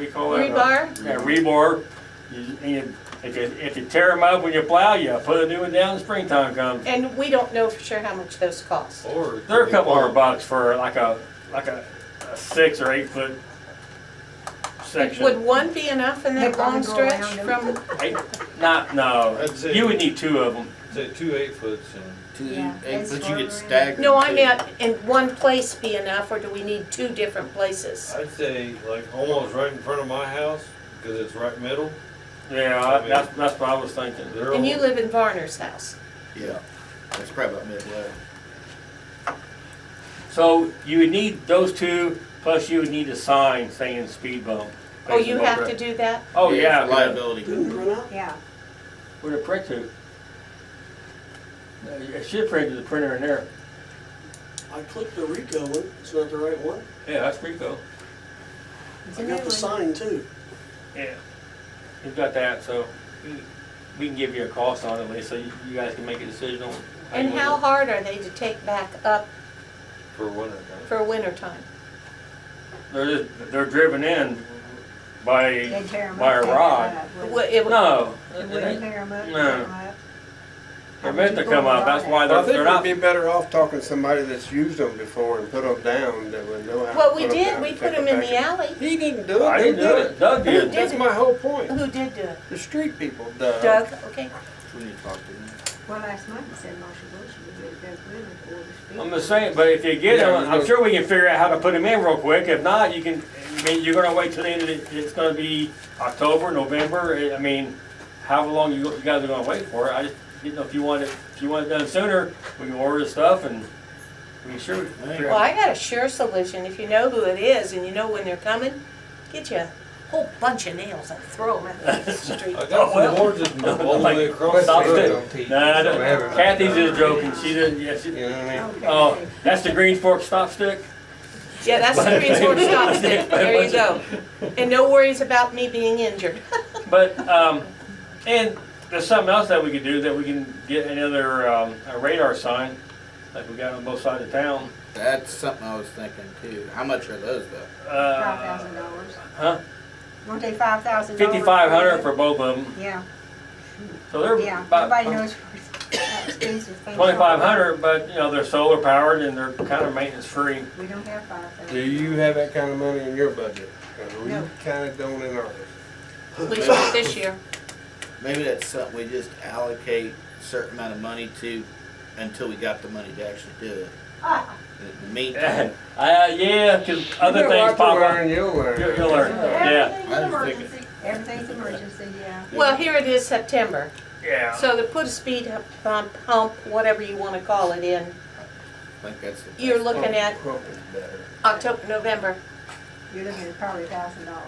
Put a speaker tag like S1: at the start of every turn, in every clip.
S1: We call it. a-
S2: Rebar?
S1: Yeah, rebar. You- you- If you, if you tear them up when you plow, you put a new one down, springtime comes.
S2: And we don't know for sure how much those cost.
S3: Or.
S1: They're a couple hundred bucks for like a, like a a six or eight foot
S2: Would
S1: section.
S2: one be enough in that
S4: They're gonna
S2: long
S4: go
S2: stretch
S4: around
S2: from,
S1: Eight- Not, no,
S3: That's it.
S1: you would need two of them.
S3: Say two eight foots and.
S5: to
S4: Yeah,
S5: the egg,
S4: it's
S5: but you
S4: farther in.
S5: get staggered.
S2: no, I
S5: too.
S2: meant in one place be enough, or do we need two different places?
S3: I'd say like almost right in front of my house, because it's right middle.
S1: Yeah, I- that's, that's what I was thinking.
S3: They're
S2: And you
S3: all-
S2: live in Varner's house.
S5: Yeah, that's probably about midway.
S1: So you would need those two, plus you would need a sign saying speed bump.
S2: Oh, you have to do that?
S1: Oh, yeah.
S5: for Liability.
S4: Yeah,
S1: Where'd it print to? No, It should print to the printer in there.
S6: I clicked the Rico one, it's not the right one.
S1: Yeah, that's pretty cool.
S6: I got the sign too.
S1: Yeah. You've got that, so you- we can give you a cost on it, Lee, so you you guys can make a decision on. you
S2: And
S1: wanna
S2: how
S1: do
S2: hard are they to take back up
S3: For winter time.
S2: for winter time?
S1: it. They're, just- they're driven in by,
S4: they tear 'em
S1: By a
S4: up. they
S1: rod.
S4: cut up, wouldn't
S2: Well, it-
S1: no.
S4: they?
S1: it
S4: They wouldn't
S1: ain't-
S4: tear 'em up,
S1: No.
S4: tear 'em up.
S1: They're meant to come up, that's why
S7: I
S1: they're,
S7: think
S1: they're not.
S7: we'd be better off talking to somebody that's used them before and put them down that would know how to
S2: Well, we
S7: put 'em
S2: did,
S7: down
S2: we
S7: and
S2: put
S7: take 'em
S2: them in
S7: back
S2: the alley.
S7: He didn't do it.
S1: I
S7: they
S1: didn't do it, Doug
S2: Who
S1: did.
S2: did
S7: That's
S2: it?
S7: my whole point.
S2: Who did do it?
S7: The street people, Doug.
S2: Doug, okay.
S5: We need to talk to them.
S4: Well, last month he said Marshall Bush would do it, Doug Goodman, for the speed.
S1: I'm just saying, but if you get
S7: Yeah,
S1: them, I'm
S7: but-
S1: sure we can figure out how to put them in real quick. If not, you can, I mean, you're gonna wait till the end of the, it's gonna be October, November, I- I mean, however long you, you guys are gonna wait for it. I just didn't know if you want it, if you want it done sooner, we can order the stuff and we can sure. figure
S2: Well,
S1: out-
S2: I got a sure solution. If you know who it is and you know when they're coming, get you a whole bunch of nails and throw them out the street.
S3: I
S1: Oh,
S3: got
S1: well.
S3: some oranges all the way across.
S7: Let's
S3: the
S1: Stop
S7: do
S3: road.
S7: it.
S1: it. Nah, that- Kathy's just joking. She didn't, yeah, she,
S7: You know what I mean?
S4: Okay.
S1: oh, that's the Green Fork stop stick?
S2: Yeah, that's the Green Fork stop stick. There you go. And no worries about me being injured.
S1: But, um, and there's something else that we could do, that we can get another, um, a radar sign, like we got on both sides of town.
S5: That's something I was thinking too. How much are those though?
S4: Five thousand
S1: Uh,
S4: dollars.
S1: huh?
S4: Weren't they five thousand dollars?
S1: Fifty-five hundred for both of them,
S4: Yeah,
S1: so they're
S4: yeah,
S1: about
S4: nobody knows how expensive things are.
S1: twenty-five hundred, but, you know, they're solar powered and they're kind of maintenance free.
S4: We don't have five
S7: Do
S4: thousand.
S7: you have that kind of money in your budget? 'Cause we
S4: No.
S7: kinda don't in ours.
S2: We should this year.
S5: Maybe that's something we just allocate a certain amount of money to until we got the money to actually do it.
S4: Ah,
S5: In the meantime,
S1: Uh, yeah, cause other
S7: You
S1: things
S7: got a lot to
S1: pop up.
S7: learn, You'll learn.
S1: You'll- you'll learn. Yeah.
S5: I was thinking,
S4: Everything's emergency, yeah.
S2: Well, here it is September.
S1: Yeah.
S2: So to put a speed hump, hump, whatever you want to call it in,
S5: I think that's the.
S2: you're looking at
S7: Hope it's better.
S2: October, November.
S4: You're looking at probably a thousand dollars.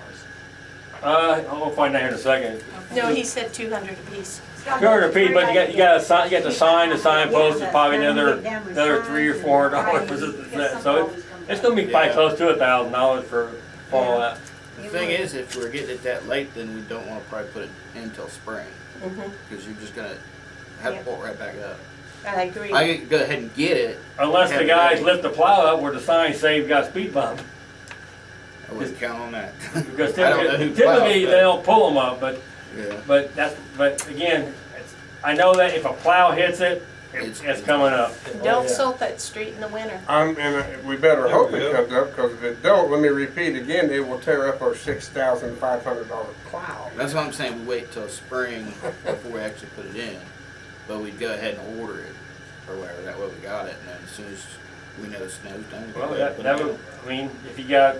S1: Uh, I'll find out here in a second.
S2: No, he said two hundred apiece.
S4: Uh,
S1: Two hundred feet, but you got, you got a sign, you got the sign, the signpost is probably another, another three or four hundred dollars. So it's, it's gonna be probably
S5: Yeah.
S1: close to a thousand dollars for all that.
S5: The thing is, if we're getting it that late, then we don't wanna probably put it in till spring,
S2: Mhm.
S5: cause you're just gonna have
S4: Yeah.
S5: to pull it right back up.
S2: I agree.
S5: I can go ahead and get it.
S1: Unless the guys lift the plow up where the sign saved got speed bump.
S5: I wouldn't count on that.
S1: Because
S5: I don't know
S1: typically,
S5: who plowed,
S1: typically
S5: but-
S1: they'll pull them up, but,
S5: Yeah.
S1: but that's, but again, it's- I know that if a plow hits it, it's,
S5: It's-
S1: it's coming up.
S2: Don't salt that street in the winter.
S7: Um, and uh, we
S3: There
S7: better
S3: we
S7: hope it
S3: go.
S7: comes up, because if it don't, let me repeat again, it will tear up our six thousand five hundred dollar plow.
S5: That's what I'm saying, we wait till spring before we actually put it in, but we'd go ahead and order it, or whatever, that way we got it, and then as soon as we know the snow's done. we
S1: Well,
S5: go
S1: that,
S5: ahead
S1: that
S5: and
S1: would, I mean, if you got,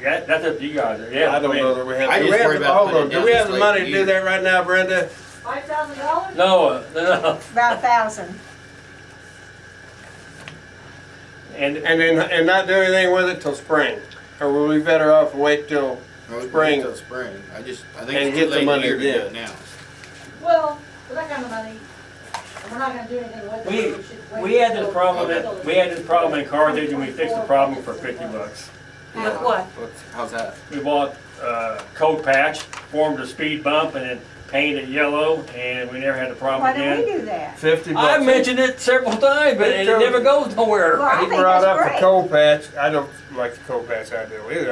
S1: yeah, that's up to you guys, yeah.
S7: I don't
S1: mean-
S7: know that we have.
S5: I
S7: do we
S5: just
S7: have
S5: worry
S7: the-
S5: about
S7: hold
S5: putting
S7: on,
S5: it
S7: Do
S5: down
S7: we
S5: this
S7: have the
S5: late
S7: money
S5: in
S7: to
S5: the
S7: do
S5: year.
S7: that right now, Brenda?
S4: Five thousand dollars?
S1: No, uh, no,
S4: About a thousand.
S1: and
S7: And then, and not do anything with it till spring? Or will we better off wait till,
S5: Or we can
S7: spring.
S5: wait Till spring, I just, I think
S7: And
S5: it's
S7: get
S5: too
S7: the
S5: late in the
S7: money
S5: year to do
S7: then.
S5: it now.
S4: Well, with that kind of money, we're not gonna do anything with
S1: we,
S4: it. We should wait
S1: we had this
S4: till-
S1: problem, that- we had this problem in Carthage and we fixed the problem for fifty bucks.
S2: With
S5: Yeah.
S2: what?
S5: What's- How's that?
S1: We bought uh, coat patch, formed a speed bump, and then painted it yellow, and we never had a problem
S4: Why don't we
S1: again.
S4: do that?
S7: fifty bucks?
S1: I mentioned it several times, but it never goes nowhere.
S4: Well, I
S7: He
S4: think
S7: brought
S4: that's
S7: up the
S4: great.
S7: coal patch, I don't like the coal patch idea either,